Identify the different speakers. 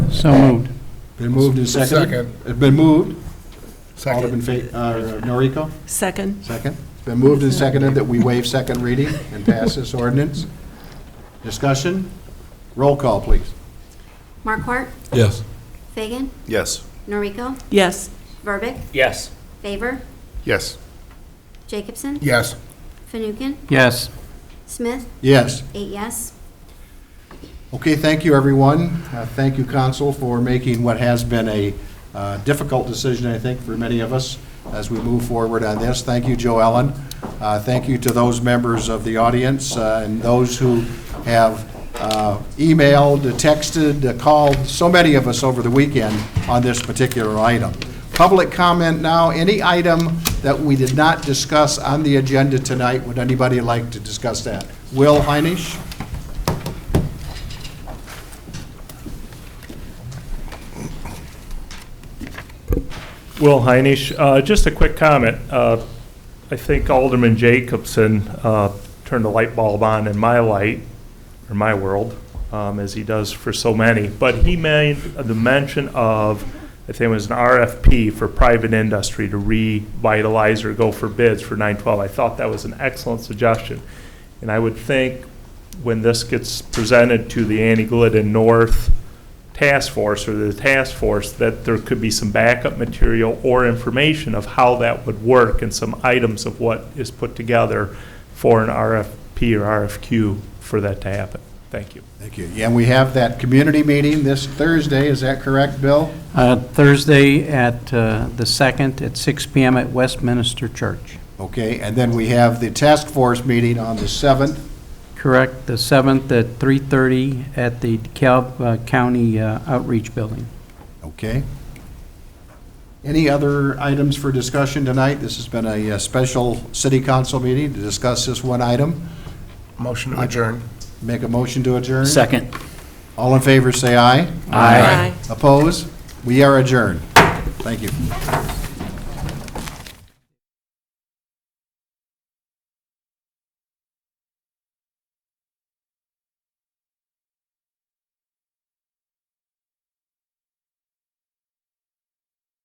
Speaker 1: So moved.
Speaker 2: Been moved and seconded.
Speaker 3: Second.
Speaker 2: It's been moved. Alderman
Speaker 3: Second.
Speaker 2: Fa- uh, Noriko,
Speaker 4: Second.
Speaker 2: second. It's been moved and seconded that we waive second reading and pass this ordinance. Discussion? Roll call, please.
Speaker 5: Markwart,
Speaker 3: Yes.
Speaker 5: Fagan,
Speaker 6: Yes.
Speaker 5: Noriko,
Speaker 4: Yes.
Speaker 5: Verbic,
Speaker 7: yes,
Speaker 5: Favor,
Speaker 6: Yes.
Speaker 5: Jacobson,
Speaker 3: Yes.
Speaker 5: Fanouken,
Speaker 1: Yes.
Speaker 5: Smith,
Speaker 2: Yes.
Speaker 5: eight yes.
Speaker 2: Okay, thank you, everyone. Uh, Thank you, Council, for making what has been a uh, difficult decision, I think, for many of us as we move forward on this. Thank you, Joe Ellen. Uh, Thank you to those members of the audience uh, and those who have uh, emailed, texted, uh, called, so many of us over the weekend on this particular item. Public comment now, any item that we did not discuss on the agenda tonight, would anybody like to discuss that? Will Heinisch?
Speaker 8: Will Heinisch, uh, just a quick comment. Uh, I think Alderman Jacobson uh, turned the light bulb on in my light, or my world, um, as he does for so many, but he made the mention of, I think it was an RFP for private industry to revitalize or go for bids for 912. I thought that was an excellent suggestion. And I would think when this gets presented to the Annie Glidden North task force or the task force, that there could be some backup material or information of how that would work and some items of what is put together for an RFP or RFQ for that to happen. Thank you.
Speaker 2: Thank you. Yeah, And we have that community meeting this Thursday, is that correct, Bill?
Speaker 1: Uh, Thursday at uh, the 2nd at 6 PM at Westminster Church.
Speaker 2: Okay, and then we have the task force meeting on the 7th.
Speaker 1: Correct, the 7th at 3:30 at the DeKalb uh, County uh, Outreach Building.
Speaker 2: Okay. Any other items for discussion tonight? This has been a uh, special city council meeting to discuss this one item.
Speaker 3: Motion to adjourn.
Speaker 2: Make a motion to adjourn.
Speaker 7: second.
Speaker 2: All in favor, say aye.
Speaker 4: Aye.
Speaker 2: Oppose? We are adjourned. Thank you.